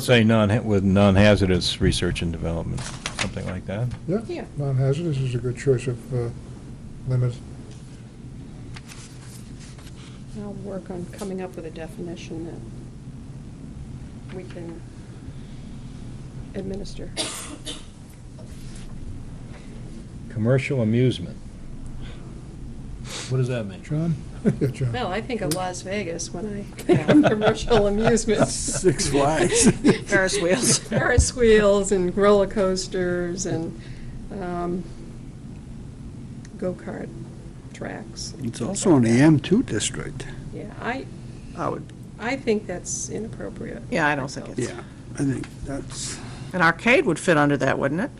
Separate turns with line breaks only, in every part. Say non, with non-hazardous research and development, something like that.
Yeah.
Yeah, non-hazardous is a good choice of uh, limit.
I'll work on coming up with a definition that we can administer.
Commercial amusement. What does that mean?
John? Yeah, John.
Well, I think of Las Vegas when I think of commercial amusements.
Six Flags.
Ferris wheels.
Ferris wheels and roller coasters and um, go-kart tracks.
It's also in the M2 district.
Yeah, I,
I would,
I think that's inappropriate.
Yeah, I don't think it's-
Yeah, I think that's,
an arcade would fit under that, wouldn't it?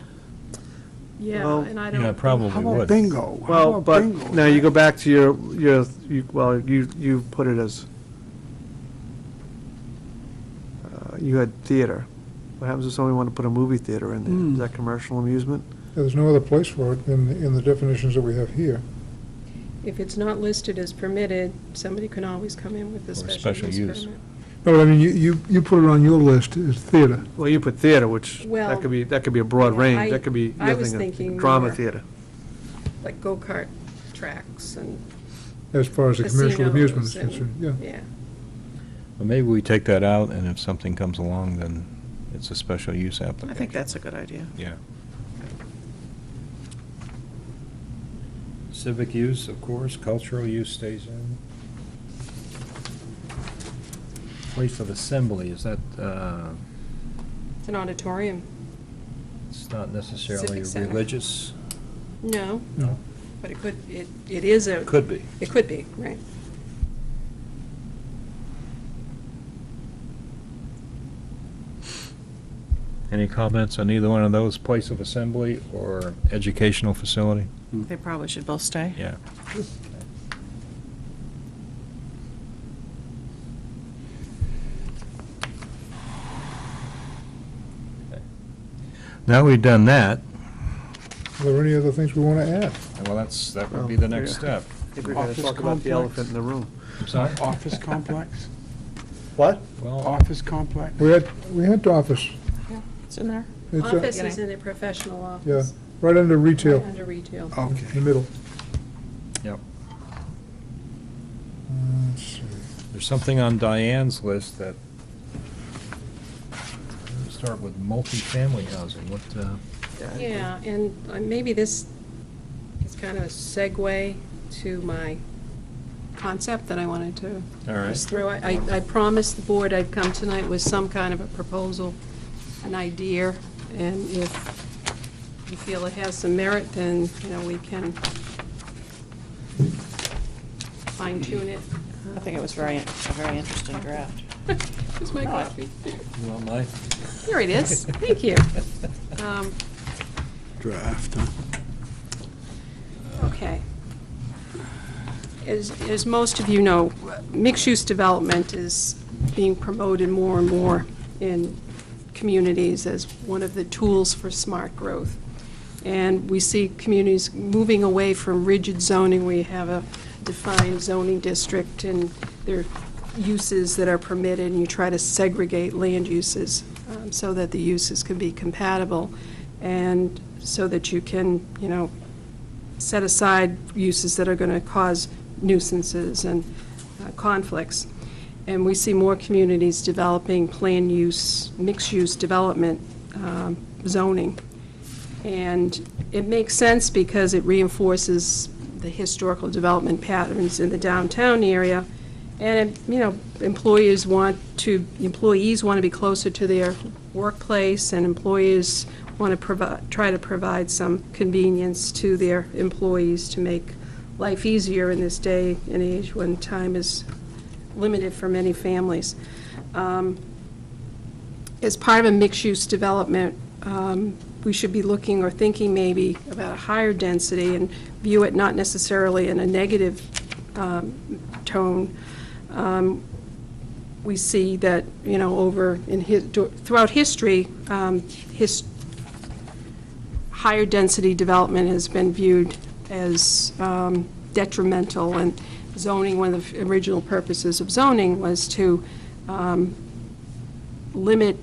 Yeah,
Well,
and I don't.
Yeah, probably
how
would.
about bingo? How
Well,
about
but,
bingo?
no, you go back to your, your, you- well, you, you put it as, uh, you had theater. What happens if somebody wanted to put a movie theater in there?
Hmm.
Is that commercial amusement?
There's no other place for it than in the definitions that we have here.
If it's not listed as permitted, somebody can always come in with a
Or
special
special
use
use.
permit.
No, but I mean, you, you you put it on your list as theater.
Well, you put theater, which,
Well,
that could be, that could be a broad
yeah, I-
range. That could be,
I
you're
was
thinking
thinking
of drama
more-
theater.
Like go-kart tracks and
As far as the commercial amusement is
casinos and-
concerned, yeah.
Yeah.
Well, Maybe we take that out, and if something comes along, then it's a special use
I
application.
think that's a good idea.
Yeah. Civic use, of course, cultural use stays in. Place of assembly, is that, uh,
It's an auditorium.
it's not necessarily
Civic center.
religious?
No,
No.
but it could, it, it is a.
Could be.
It could be, right.
Any comments on either one of those, place of assembly or educational facility?
They probably should both stay.
Yeah. Now we've done that,
Are there any other things we want to add?
well, that's, that would be the
Oh,
next step.
I think we're gonna
Office
talk about the
complex.
elephant in the room.
I'm sorry?
Office complex?
What?
Well,
Office complex?
We had, we had office.
It's in there.
It's uh,
Office
Yeah.
is in a professional
Yeah,
office.
right under retail,
Under retail.
in the
Okay.
middle.
Yep.
Uh, Let's see.
there's something on Diane's list that, Let's start with multifamily housing, what, uh?
Yeah, and uh, maybe this is kind of a segue to my concept that I wanted to
All right.
just throw. I, I promised the board I'd come tonight with some kind of a proposal, an idea, and if you feel it has some merit, then, you know, we can fine tune it.
I think it was very, a very interesting draft.
Here's my coffee.
You want mine?
Here it is, thank you. Um,
Draft, huh?
Okay. As, as most of you know, mixed-use development is being promoted more and more in communities as one of the tools for smart growth. And we see communities moving away from rigid zoning. We have a defined zoning district, and there are uses that are permitted, and you try to segregate land uses um, so that the uses can be compatible, and so that you can, you know, set aside uses that are going to cause nuisances and uh, conflicts. And we see more communities developing plan use, mixed-use development um, zoning. And it makes sense because it reinforces the historical development patterns in the downtown area. And, you know, employers want to, employees want to be closer to their workplace, and employers want to provide, try to provide some convenience to their employees to make life easier in this day and age when time is limited for many families. Um, as part of a mixed-use development, um, we should be looking or thinking maybe about a higher density and view it not necessarily in a negative um, tone. Um, We see that, you know, over in, his- throughout history, um, his, higher density development has been viewed as um, detrimental, and zoning, one of the original purposes of zoning was to um, limit